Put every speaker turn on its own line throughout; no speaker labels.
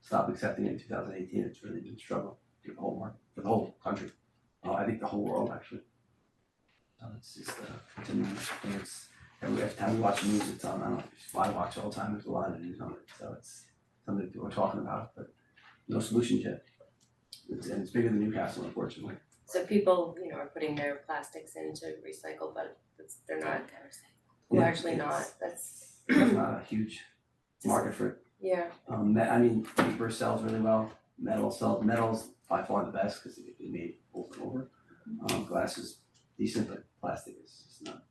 stopped accepting it in two thousand eighteen, it's really been a struggle for the whole market, for the whole country. Uh, I think the whole world actually. Uh, it's just, uh, continuing, and it's, every every time we watch the news, it's on, I don't know, I watch all the time, there's a lot of news on it, so it's something that people are talking about, but no solutions yet. It's, and it's bigger than Newcastle unfortunately.
So people, you know, are putting their plastics in to recycle, but it's, they're not,
Yeah,
largely
it's-
not, that's,
It's not a huge market for it.
yeah,
Um, me- I mean, paper sells really well, metal sells, metal's by far the best because it can be made over and over. Um, glass is decent, but plastic is just not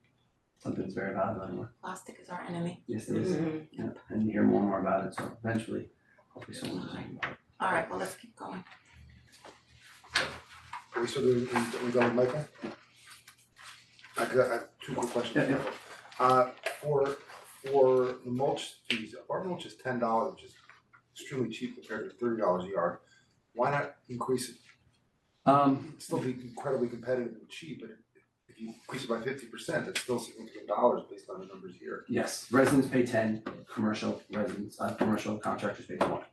something that's very valuable anymore.
Plastic is our enemy.
Yes, it
Mm-hmm.
is, yeah, and you hear more and more about it, so eventually, hopefully someone will think about it.
All right, well, let's keep going.
Are we still doing, we we done with Michael? I got, I have two quick questions.
Yeah,
Uh, for, for the mulch, these apartment mulch is ten dollars, which is extremely cheap compared to thirty dollars a yard. Why not increase it,
Um,
It'd still be incredibly competitive and cheap, but if you increase it by fifty percent, that's still significant dollars based on the numbers here.
yes, residents pay ten, commercial residents, uh, commercial contractors pay twenty.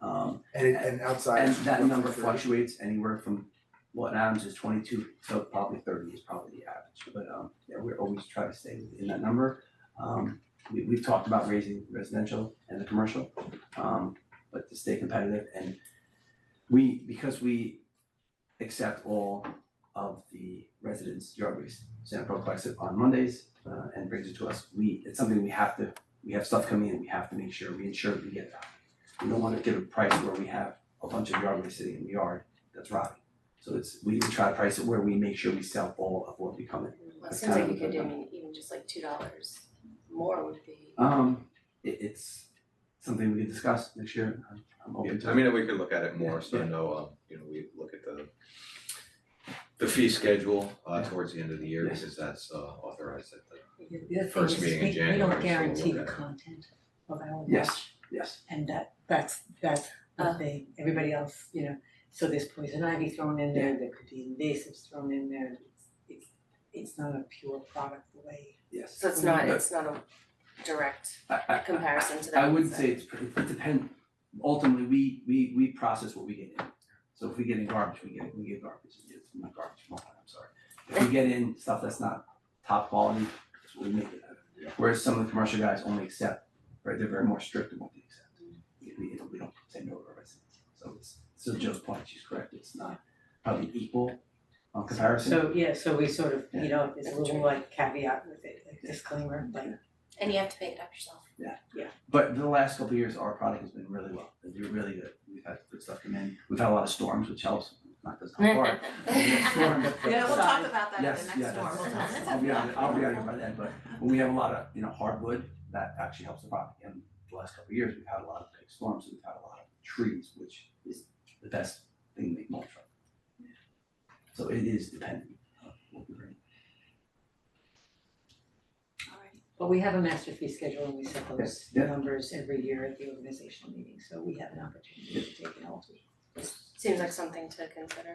Um,
And it, and outside.
And
it's
that
roughly
number
30.
fluctuates anywhere from what Adams is twenty-two, so probably thirty is probably the average, but um, yeah, we're always trying to stay within that number. Um, we we've talked about raising residential and the commercial, um, but to stay competitive and we, because we accept all of the residents' yard waste, Sanpro collects it on Mondays uh and brings it to us, we, it's something we have to, we have stuff coming in, we have to make sure, we ensure we get that. We don't wanna give a price where we have a bunch of yard waste sitting in the yard that's rotting. So it's, we try to price it where we make sure we sell all of what we come in.
Well, it
That's
seems like
kind
you
of
could
the-
do even just like two dollars more would be,
Um, it it's something we can discuss next year, I'm I'm open to
I
it.
mean, we could look at it more, so I
Yeah.
know, um, you know, we look at the the fee schedule uh
Yeah.
towards the end of the year,
Yeah.
because that's uh authorized at the
The other thing
First
is
meeting in
we- we
January, so
don't
we'll
guarantee the
look at it.
content of our watch.
Yes. Yes,
And that, that's, that's the
Uh.
thing, everybody else, you know, so there's poison ivy thrown in there, there could be invasives thrown in there. and It's, it's, it's not a pure product the way.
yes.
so it's not, it's not a direct
I I- I-
comparison to that.
I wouldn't say it's, it it depend, ultimately, we we we process what we get in. So if we get in garbage, we get, we get garbage, it's not garbage, come on, I'm sorry. If we get in stuff that's not top quality, that's what we make it out of. Whereas some of the commercial guys only accept, right, they're very more strict in what they accept. We- We don't, we don't say no to our residents, so it's, so Joe's point, she's correct, it's not probably equal on comparison.
So, yeah, so we sort of,
Yeah.
you know, there's a little like caveat with it, like disclaimer, like,
And you have to make it up yourself.
But the last couple of years, our product has been really well, they're really good, we've had good stuff come in, we've had a lot of storms, which helps, not doesn't help our storm, but- but-
Yeah, we'll
Sorry.
talk about that
Yes,
at the
yeah,
next storm,
that's-
we'll talk,
that's- I'll be out, I'll be out here by then, but when we have a lot of, you know, hardwood, that actually helps the product, and the last couple of years, we've had a lot of big storms, and we've had a lot of trees, which is the best thing to make mulch from. So it is dependent on what we bring.
But we have a master fee schedule and we set those
Yes, yeah.
numbers every year at the organizational meeting, so we have an opportunity to take an all
Seems like something to consider.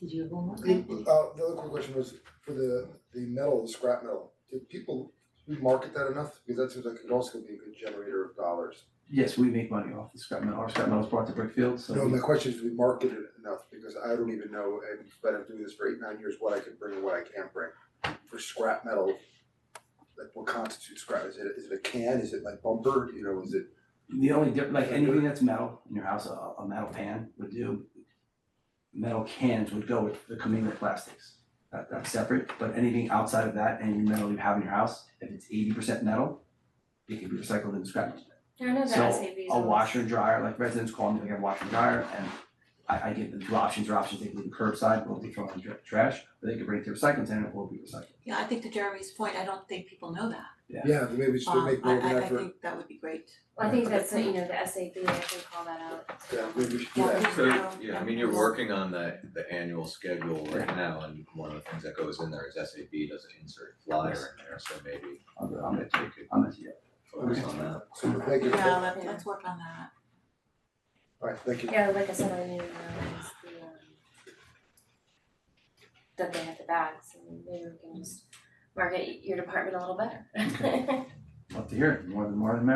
Did you have one more?
Uh, the other quick question was for the, the metal, the scrap metal, did people, we market that enough? Because that seems like it also could be a good generator of dollars.
Yes, we make money off the scrap metal, our scrap metal is brought to Brookfield, so.
No,
we-
my question is, we market it enough, because I don't even know, and but I'm doing this for eight, nine years, what I can bring and what I can't bring. For scrap metal, like what constitutes scrap, is it, is it a can, is it my bumper, you know, is it,
The only difference, like anything that's metal in your house, a, a metal pan would do. Metal cans would go with the commingled plastics. That, that's separate, but anything outside of that, any metal you have in your house, if it's eighty percent metal, it can be recycled and scrapped.
I know
So, A washer and dryer, like residents call me, they have a washer and dryer, and I, I give them two options, or options, they can leave it curbside, or they throw it in dr- trash, or they can bring it to a recycling center, or be recycled.
Yeah, I think to Jeremy's point, I don't think people know that.
yeah, maybe we should
Um,
make
I
more of
I
an
I
effort,
think that would be great.
I think that's, you know, the SAB, I can call that out.
yeah, maybe we should do
Yeah.
that.
So, yeah, I mean, you're working on the the annual schedule right now, and one of the things that goes in there is SAB does an insert flyer in there, so maybe
I'm,
um,
I'm,
that you could
I'm, yeah.
focus on that.
So, thank you,
Yeah,
alright,
let, let's work on that.
thank you.
Yeah, like I said, I knew uh, it's the um that they have the bags and maybe we can just market your department a little better.
love to hear it, more than more than